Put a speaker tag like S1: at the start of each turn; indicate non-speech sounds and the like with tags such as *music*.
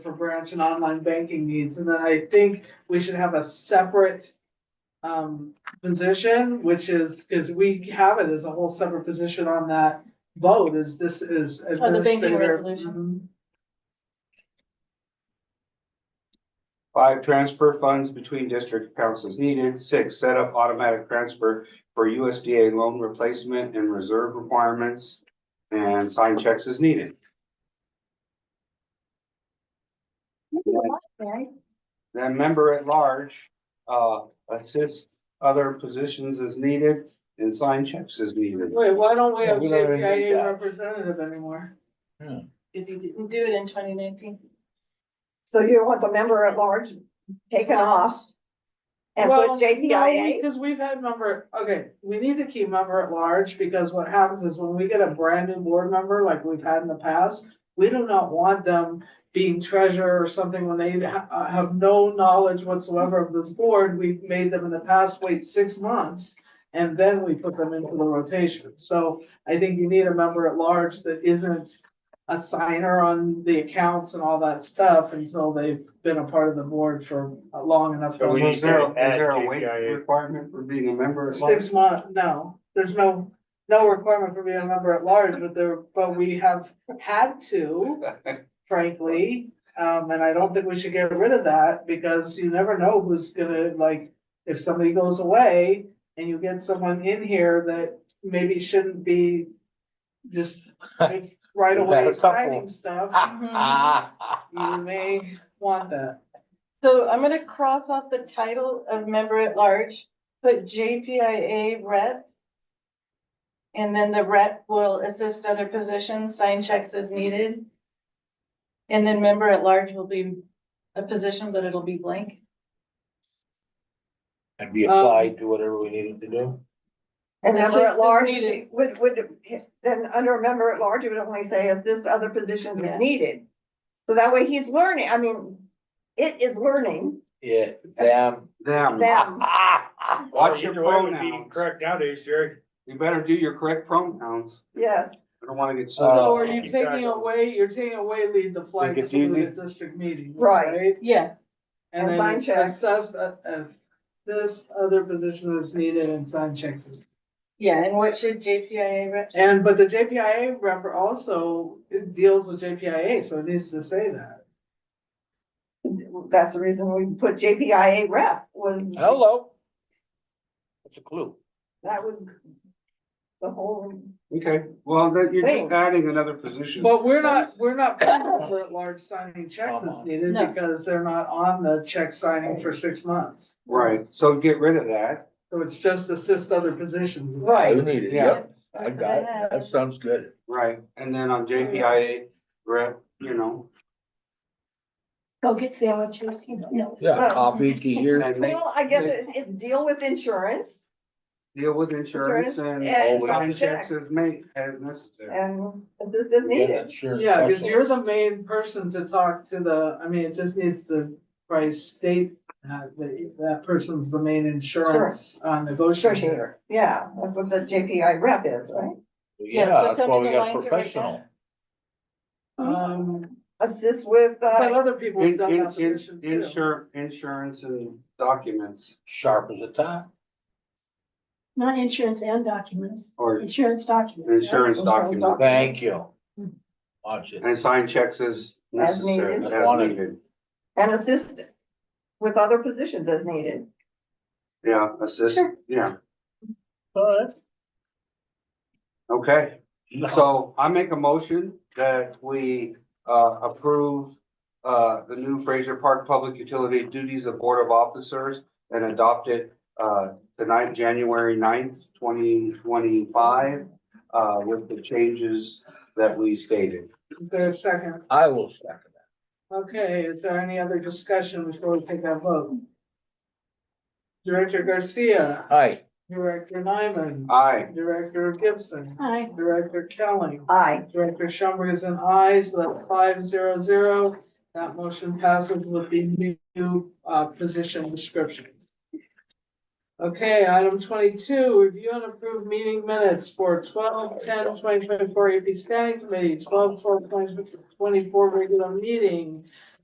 S1: branch and online banking needs, and then I think we should have a separate. Um, position, which is, because we have it as a whole separate position on that vote, is this is.
S2: Oh, the banking
S1: administrator-
S2: resolution.
S1: Mhm.
S3: Five, transfer funds between district accounts as needed. Six, set up automatic transfer for USDA loan replacement and reserve requirements and sign checks as needed. Then member at large, uh, assist other positions as needed and sign checks as needed.
S1: Wait, why don't we
S4: Yeah,
S1: have
S4: we don't even need
S1: JPIA
S4: that.
S1: representative anymore?
S2: Cause you didn't do it in twenty nineteen.
S5: So you want the member at large taken off? And
S1: Well,
S5: put JPIA?
S1: Because we've had member, okay, we need to keep member at large, because what happens is when we get a brand new board member like we've had in the past, we do not want them being treasurer or something when they ha- uh, have no knowledge whatsoever of this board. We've made them in the past wait six months, and then we put them into the rotation. So I think you need a member at large that isn't a signer on the accounts and all that stuff until they've been a part of the board for uh, long enough.
S4: So we
S3: Is
S4: need
S3: there,
S4: to
S3: is
S4: add
S3: there a weight
S4: JPIA.
S3: requirement for being a member at large?
S1: Six month, no, there's no, no requirement for being a member at large, but there, but we have had to,
S4: *laughs*
S1: frankly. Um, and I don't think we should get rid of that, because you never know who's gonna, like, if somebody goes away and you get someone in here that maybe shouldn't be just
S4: *laughs*
S1: like, right
S4: We've
S1: away
S4: had a couple.
S1: signing stuff,
S6: Mm-hmm.
S4: Mm-hmm.
S1: you
S4: Ah.
S1: may want that.
S2: So I'm gonna cross off the title of member at large, put JPIA rep. And then the rep will assist other positions, sign checks as needed. And then member at large will be a position, but it'll be blank.
S4: And be applied to whatever we needed to do.
S5: And member
S2: Assist
S5: at
S2: is
S5: large
S2: needed.
S5: would, would, then under a member at large, it would only say assist other positions
S2: Yeah.
S5: as needed. So that way he's learning, I mean, it is learning
S4: Yeah, them.
S3: Them.
S5: them.
S3: Watch your pronouns.
S7: Correct nowadays, Jerry.
S3: You better do your correct pronouns.
S5: Yes,
S3: I don't wanna get.
S4: Uh,
S1: So are you
S7: Exactly.
S1: taking away, you're taking away lead the flag
S4: Think it's
S1: school
S4: easy?
S1: at district meetings,
S5: Right.
S1: right?
S2: Yeah,
S1: And
S5: And
S1: then
S5: sign checks.
S1: assess, uh, uh, this other position is needed and sign checks. is-
S2: yeah, and what should JPIA rep?
S1: And, but the JPIA rep also deals with JPIA, so it needs to say that.
S5: that's the reason we put JPIA rep was,
S4: Hello. That's a clue.
S5: that was the whole,
S3: Okay, well, that you're
S5: Wait.
S3: just adding another position.
S1: But we're not, we're not putting over at large signing checks that's
S4: Uh-huh.
S1: needed
S2: No.
S1: because they're not on the check signing for six months.
S3: Right, so get rid of that.
S1: So it's just assist other positions.
S5: Right.
S4: You need it,
S3: Yeah.
S4: yeah. I got it. That sounds good.
S3: Right, and then on JPIA, rep, you know,
S6: Go get sandwiches, you know.
S4: Yeah, coffee, tea here.
S3: and make,
S5: well, I guess it- it's deal with insurance
S3: deal with insurance
S5: Insurance
S3: and
S5: and
S3: sign
S5: checks.
S3: checs as made, as necessary.
S5: and assist is
S4: We got
S5: needed.
S4: insurance
S1: Yeah, because you're the
S4: specialist.
S1: main person to talk to the, I mean, it just needs to probably state uh, that, that person's the main insurance uh, negotiator.
S5: Negotiator, yeah, that's what the JPI rep is, right?
S4: Yeah,
S2: Yeah, so
S4: that's
S2: tell
S4: why
S2: me
S4: we
S2: the
S4: got
S2: lines are right
S4: professional.
S1: Um,
S5: Assist with,
S1: but
S5: uh,
S1: other people have
S3: In,
S1: done
S3: in,
S1: that
S3: in,
S1: position too.
S3: insur, insurance and documents
S4: Sharp as a tack.
S6: Not insurance and documents,
S3: or
S6: insurance documents. yeah.
S3: insurance documents
S4: Thank you. Watch it.
S3: and sign checks as necessary,
S4: needed.
S3: as needed.
S5: and assist with other positions as needed.
S3: Yeah, assist, yeah,
S4: But.
S3: okay. So I make a motion that we uh approve uh the new Fraser Park Public Utility Duties of Board of Officers and adopt it uh tonight, January 9th, twenty twenty-five, uh with the changes that we stated.
S1: Is there a second?
S4: I will second
S1: Okay, is there any other discussion before we take that vote? Director Garcia,
S4: that. Aye.
S1: Director Nyman,
S3: Aye,
S1: Director Gibson,
S6: Hi.
S1: Director Kelly.
S5: Aye.
S1: Director Schumberg is an aye, so that's five zero zero. That motion passes with the new uh position description. Okay, item twenty-two, review and approve meeting minutes for 12-10-2024 AP Standing Committee, 12-4-2024 regular meeting,